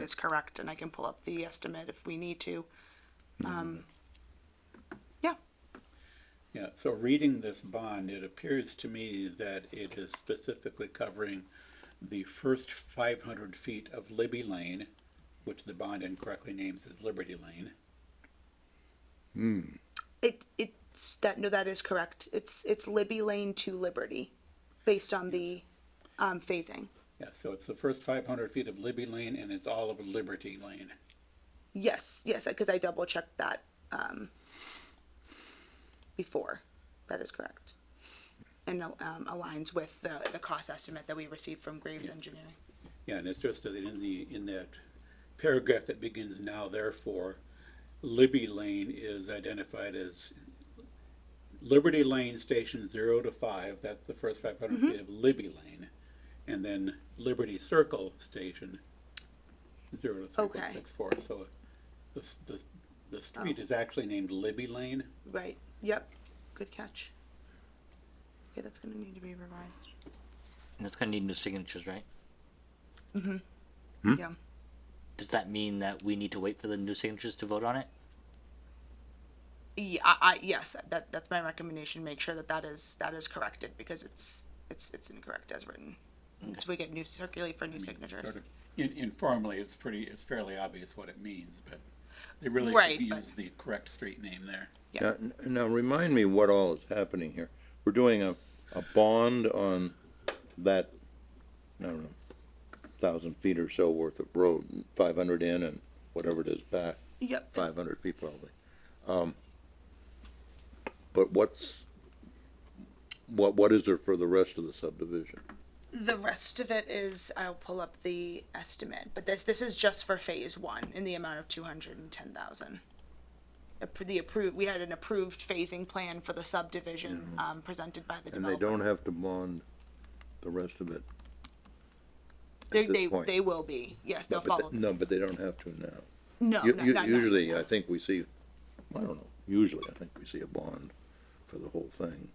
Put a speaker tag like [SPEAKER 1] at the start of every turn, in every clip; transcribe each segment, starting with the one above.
[SPEAKER 1] is correct, and I can pull up the estimate if we need to. Um, yeah,
[SPEAKER 2] Yeah, so reading this bond, it appears to me that it is specifically covering the first five hundred feet of Libby Lane, which the bond incorrectly names as Liberty Lane.
[SPEAKER 1] it it's that no, that is correct. It's it's Libby Lane to Liberty, based on the um, phasing.
[SPEAKER 2] Yeah, so it's the first five hundred feet of Libby Lane and it's all of Liberty Lane.
[SPEAKER 1] Yes, yes, because I double checked that um, before. That is correct, and um, aligns with the the cost estimate that we received from Graves Engineering.
[SPEAKER 2] Yeah, and it's just that in the, in that paragraph that begins now therefore, Libby Lane is identified as Liberty Lane Station zero to five, that's the first five hundred
[SPEAKER 1] Mm-hmm.
[SPEAKER 2] feet of Libby Lane. And then Liberty Circle Station, zero to three point
[SPEAKER 1] Okay. Oh.
[SPEAKER 2] six four, so the, s- the, the street is actually named Libby Lane.
[SPEAKER 1] Right. Yep. Good catch. Okay, that's gonna need to be revised.
[SPEAKER 3] And it's gonna need new signatures, right?
[SPEAKER 1] Yeah.
[SPEAKER 3] Does that mean that we need to wait for the new signatures to vote on it?
[SPEAKER 1] Yeah. I, I, yes. That that's my recommendation. Make sure that that is that is corrected because it's it's it's incorrect as written. So we get new circulate for
[SPEAKER 4] Mm-hmm.
[SPEAKER 1] new signatures.
[SPEAKER 2] Sort of In, informally, it's pretty, it's fairly obvious what it means, but they really
[SPEAKER 1] Right,
[SPEAKER 2] could
[SPEAKER 1] but-
[SPEAKER 2] use the correct street name there.
[SPEAKER 1] Yeah.
[SPEAKER 4] Now, now remind me what all is happening here. We're doing a, a bond on that, I don't know, thousand feet or so worth of road, five hundred in and whatever it is back,
[SPEAKER 1] Yep.
[SPEAKER 4] five hundred feet probably. Um, But what's, what, what is there for the rest of the subdivision?
[SPEAKER 1] The rest of it is I'll pull up the estimate, but this this is just for phase one in the amount of two hundred and ten thousand. The approved we had an approved phasing plan for the subdivision um, presented by the
[SPEAKER 4] Mm-hmm. And they
[SPEAKER 1] developer.
[SPEAKER 4] don't have to bond the rest of it. at
[SPEAKER 1] They
[SPEAKER 4] this
[SPEAKER 1] they,
[SPEAKER 4] point.
[SPEAKER 1] they will be yes they'll
[SPEAKER 4] No, but
[SPEAKER 1] follow
[SPEAKER 4] they- No, but they don't have to now.
[SPEAKER 1] No,
[SPEAKER 4] U-
[SPEAKER 1] no,
[SPEAKER 4] u-
[SPEAKER 1] not, not-
[SPEAKER 4] Usually,
[SPEAKER 1] no.
[SPEAKER 4] I think we see, I don't know, usually I think we see a bond for the whole thing.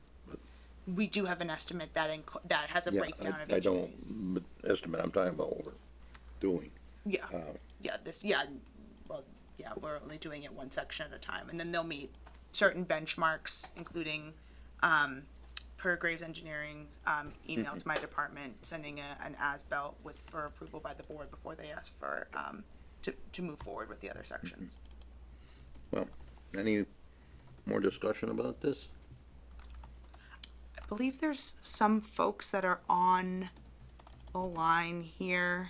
[SPEAKER 1] we do have an estimate that inc- that has a
[SPEAKER 4] Yeah,
[SPEAKER 1] breakdown
[SPEAKER 4] I-
[SPEAKER 1] of each
[SPEAKER 4] I don't,
[SPEAKER 1] phase.
[SPEAKER 4] but estimate, I'm talking about what we're doing.
[SPEAKER 1] Yeah,
[SPEAKER 4] uh,
[SPEAKER 1] yeah, this, yeah, well, yeah, we're only doing it one section at a time, and then they'll meet certain benchmarks, including um, per Graves Engineering um, email to my department, sending a, an as-built with for approval by the board before they ask for um, to to move forward with the other sections.
[SPEAKER 4] Well, any more discussion about this?
[SPEAKER 1] I believe there's some folks that are on the line here.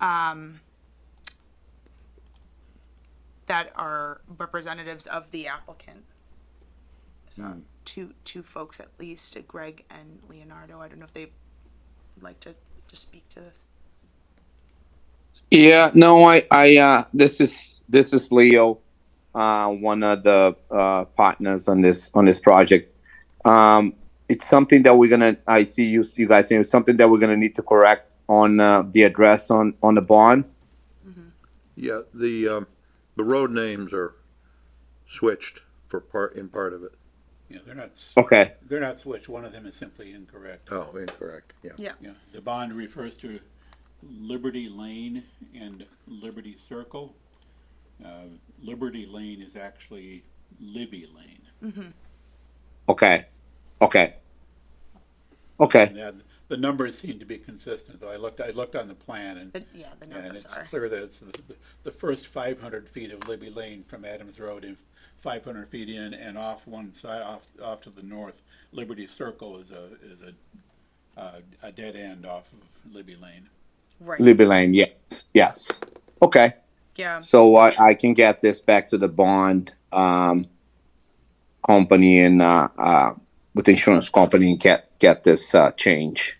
[SPEAKER 1] Um, that are representatives of the applicant. So two, two folks at least, Greg and Leonardo. I don't know if they would like to, to speak to this.
[SPEAKER 5] Yeah, no, I, I, uh, this is this is Leo, uh, one of the uh, partners on this on this project. Um, it's something that we're gonna. I see you, you guys saying it's something that we're gonna need to correct on uh, the address on on the bond.
[SPEAKER 4] Yeah, the, um, the road names are switched for part, in part of it.
[SPEAKER 2] Yeah, they're not. s-
[SPEAKER 5] Okay,
[SPEAKER 2] They're not switched, one of them is simply incorrect.
[SPEAKER 4] Oh, incorrect, yeah.
[SPEAKER 2] Yeah, the bond refers to Liberty Lane and Liberty Circle. Uh, Liberty Lane is actually Libby Lane.
[SPEAKER 5] okay, okay, okay.
[SPEAKER 2] And that, the numbers seem to be consistent, though I looked, I looked on the plan and,
[SPEAKER 1] But yeah, the
[SPEAKER 2] and
[SPEAKER 1] numbers
[SPEAKER 2] it's
[SPEAKER 1] are.
[SPEAKER 2] clear that it's the, the- the first five hundred feet of Libby Lane from Adams Road and five hundred feet in and off one side, off, off to the north. Liberty Circle is a, is a, uh, a dead end off of Libby Lane.
[SPEAKER 1] Right,
[SPEAKER 5] Libby Lane, yes, yes. Okay,
[SPEAKER 1] yeah,
[SPEAKER 5] so I, I can get this back to the bond um, company and uh, uh, with the insurance company and get get this uh, change.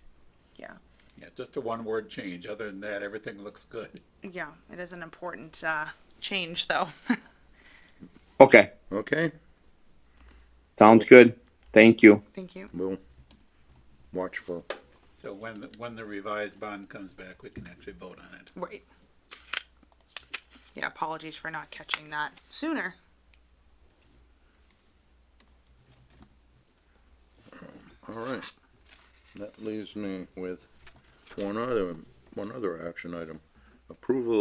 [SPEAKER 1] yeah.
[SPEAKER 2] Yeah, just a one word change. Other than that, everything looks good.
[SPEAKER 1] Yeah, it is an important, uh, change though.
[SPEAKER 5] Okay,
[SPEAKER 4] Okay,
[SPEAKER 5] sounds good. Thank you.
[SPEAKER 1] Thank you.
[SPEAKER 4] we'll watch for,
[SPEAKER 2] So when, the- when the revised bond comes back, we can actually vote on it.
[SPEAKER 1] Right. Yeah, apologies for not catching that sooner.
[SPEAKER 4] all right. That leaves me with one other, one other action item. approval